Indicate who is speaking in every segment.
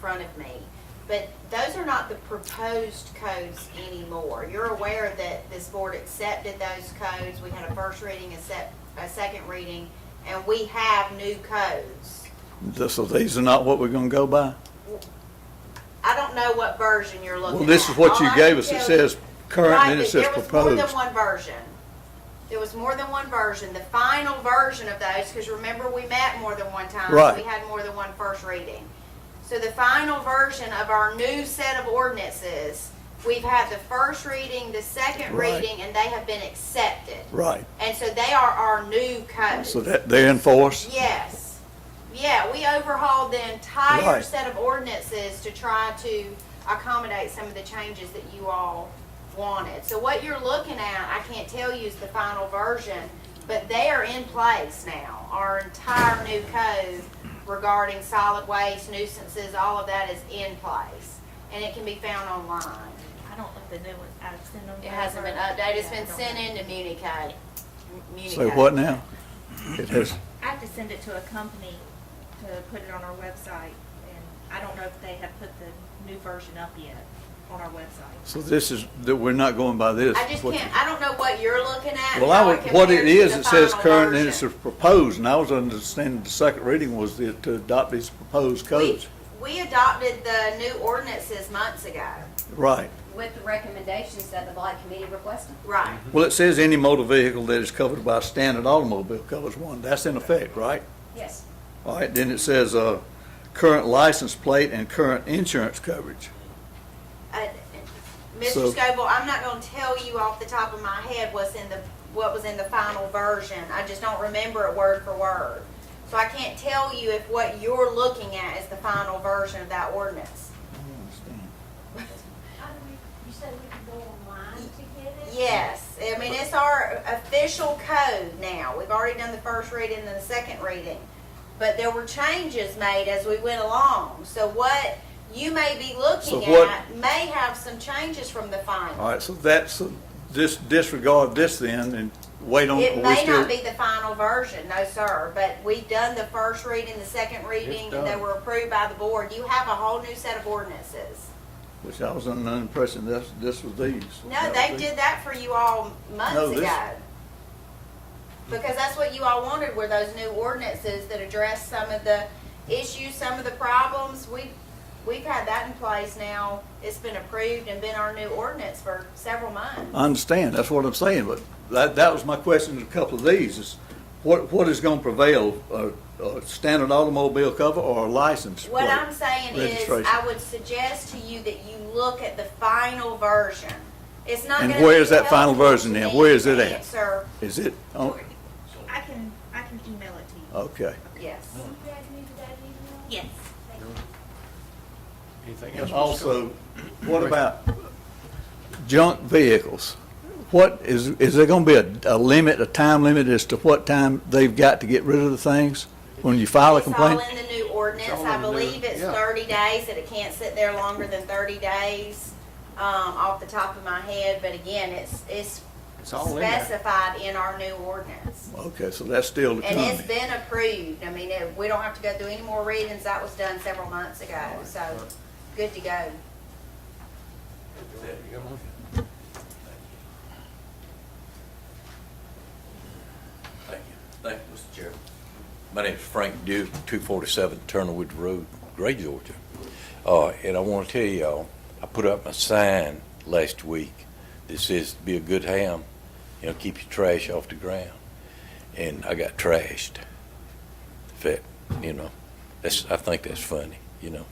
Speaker 1: front of me. But those are not the proposed codes anymore. You're aware that this board accepted those codes. We had a first reading, a sec, a second reading, and we have new codes.
Speaker 2: Just So these are not what we're gonna go by?
Speaker 1: I don't know what version you're looking at.
Speaker 2: Well, this is what
Speaker 1: All
Speaker 2: you
Speaker 1: I
Speaker 2: gave
Speaker 1: can
Speaker 2: us. It
Speaker 1: tell
Speaker 2: says current
Speaker 1: Right,
Speaker 2: and it
Speaker 1: but
Speaker 2: says
Speaker 1: There was more than
Speaker 2: proposed.
Speaker 1: one version. There was more than one version. The final version of those, because remember, we met more than one time. so
Speaker 2: Right.
Speaker 1: We had more than one first reading. So the final version of our new set of ordinances, we've had the first reading, the second
Speaker 2: Right.
Speaker 1: reading, and they have been accepted.
Speaker 2: Right.
Speaker 1: And so they are our new codes.
Speaker 2: So that they're in force?
Speaker 1: Yes. Yeah, we overhauled the entire
Speaker 2: Right.
Speaker 1: set of ordinances to try to accommodate some of the changes that you all wanted. So what you're looking at, I can't tell you is the final version, but they are in place now. Our entire new code regarding solid waste, nuisances, all of that is in place. And it can be found online.
Speaker 3: I don't think the new ones, I've seen them.
Speaker 1: It hasn't been
Speaker 3: forever.
Speaker 1: updated, it's
Speaker 3: Yeah, I
Speaker 1: been
Speaker 3: don't
Speaker 1: sent
Speaker 3: know.
Speaker 1: into Municode.
Speaker 2: So what now? It has,
Speaker 3: I have to send it to a company to put it on our website, and I don't know if they have put the new version up yet on our website.
Speaker 2: so this is, that we're not going by this?
Speaker 1: I just
Speaker 2: What-
Speaker 1: can't, I don't know what you're looking at. and
Speaker 2: Well, I,
Speaker 1: how
Speaker 2: would- what it
Speaker 1: compares
Speaker 2: is,
Speaker 1: to the
Speaker 2: it says
Speaker 1: final
Speaker 2: current and it's
Speaker 1: version.
Speaker 2: proposed, and I was understanding the second reading was the- to adopt these proposed codes.
Speaker 1: We we adopted the new ordinances months ago.
Speaker 2: Right.
Speaker 4: with the recommendations that the blight committee requested.
Speaker 1: Right.
Speaker 2: Well, it says any motor vehicle that is covered by a standard automobile covers one. That's in effect, right?
Speaker 4: Yes.
Speaker 2: All right, then it says, uh, current license plate and current insurance coverage.
Speaker 1: Uh, Mr.
Speaker 2: Mm-hmm. So-
Speaker 1: Scoble, I'm not gonna tell you off the top of my head what's in the, what was in the final version. I just don't remember it word for word. So I can't tell you if what you're looking at is the final version of that ordinance.
Speaker 2: I don't understand.
Speaker 5: How do we, you said we could go online to get it?
Speaker 1: Yes, I mean, it's our official code now. We've already done the first reading and the second reading. But there were changes made as we went along. So what you may be
Speaker 2: So
Speaker 1: looking
Speaker 2: what-
Speaker 1: at may have some changes from the final.
Speaker 2: All right, so that's, just disregard this then and wait on,
Speaker 1: It
Speaker 2: we
Speaker 1: may
Speaker 2: still,
Speaker 1: not be the final version, no sir, but we've done the first reading, the second reading, and they
Speaker 2: done.
Speaker 1: were approved by the board. You have a whole new set of ordinances.
Speaker 2: which I was under the impression this, this was these.
Speaker 1: No, they did that for you all
Speaker 2: No,
Speaker 1: months
Speaker 2: this-
Speaker 1: ago. Because that's what you all wanted were those new ordinances that address some of the issues, some of the problems. We, we've had that in place now. It's been approved and been our new ordinance for several months.
Speaker 2: I understand, that's what I'm saying, but that, that was my question to a couple of these, is what, what is gonna prevail? A, a standard automobile cover or a license plate?
Speaker 1: What I'm saying is,
Speaker 2: registration.
Speaker 1: I would suggest to you that you look at the final version. It's not
Speaker 2: And
Speaker 1: gonna
Speaker 2: where
Speaker 1: be
Speaker 2: is that final
Speaker 1: helpful
Speaker 2: version
Speaker 1: to
Speaker 2: then?
Speaker 1: me
Speaker 2: Where is
Speaker 1: to
Speaker 2: it at?
Speaker 1: Answer,
Speaker 2: Is it, oh,
Speaker 3: I can, I can email it to you.
Speaker 2: okay.
Speaker 1: yes.
Speaker 5: You guys need that email?
Speaker 3: Yes.
Speaker 5: Thank you.
Speaker 6: Anything else?
Speaker 2: And
Speaker 6: Mr.
Speaker 2: also,
Speaker 6: Scott?
Speaker 2: what about junk vehicles? What, is, is there gonna be a, a limit, a time limit as to what time they've got to get rid of the things when you file a
Speaker 1: It's all
Speaker 2: complaint?
Speaker 1: in the new ordinance.
Speaker 6: all
Speaker 1: I
Speaker 6: in the new-
Speaker 1: believe it's
Speaker 6: yeah.
Speaker 1: thirty days, that it can't sit there longer than thirty days, um, off the top of my head. But again, it's, it's
Speaker 6: It's all in there.
Speaker 1: specified in our new ordinance.
Speaker 2: Okay, so that's still to
Speaker 1: And it's
Speaker 2: come.
Speaker 1: been approved. I mean, it- we don't have to go through any more readings. That was done several months ago, so good to go.
Speaker 6: You got one?
Speaker 7: Thank you. Thank you, Mr. Chairman. My name is Frank Duke, 247 Turnerwood Road, Gray, Georgia. Uh, And I want to tell y'all, I put up my sign last week that says, "Be a good ham, you know, keep your trash off the ground." And I got trashed. That, you know, that's, I think that's funny, you know.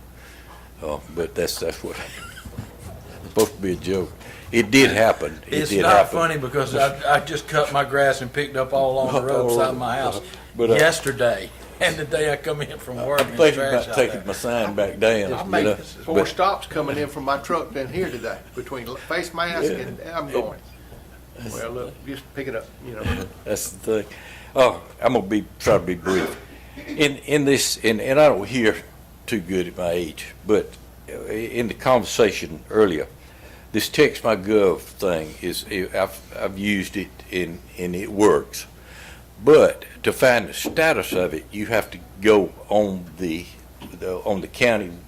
Speaker 7: Uh, But that's, that's what, supposed to be a joke. It did happen. It
Speaker 8: It's
Speaker 7: did
Speaker 8: not
Speaker 7: happen.
Speaker 8: funny because I, I just cut my grass and picked up all along the road beside my house
Speaker 7: Oh, But, uh,
Speaker 8: yesterday. And the day I come in from work,
Speaker 7: I'm
Speaker 8: there's
Speaker 7: thinking
Speaker 8: trash
Speaker 7: about
Speaker 8: out
Speaker 7: taking
Speaker 8: there.
Speaker 7: my sign back down.
Speaker 6: I
Speaker 7: you
Speaker 6: make
Speaker 7: know,
Speaker 6: four
Speaker 7: but-
Speaker 6: stops coming in from my truck down here today, between face mask and, and I'm going. Well, look, just pick it up, you know.
Speaker 7: That's the thing. Oh, I'm gonna be try to be brief. In in this, and and I don't hear too good at my age, but uh, in the conversation earlier, this text my gov thing is I've I've used it and and it works, but to find the status of it, you have to go on the, the on the county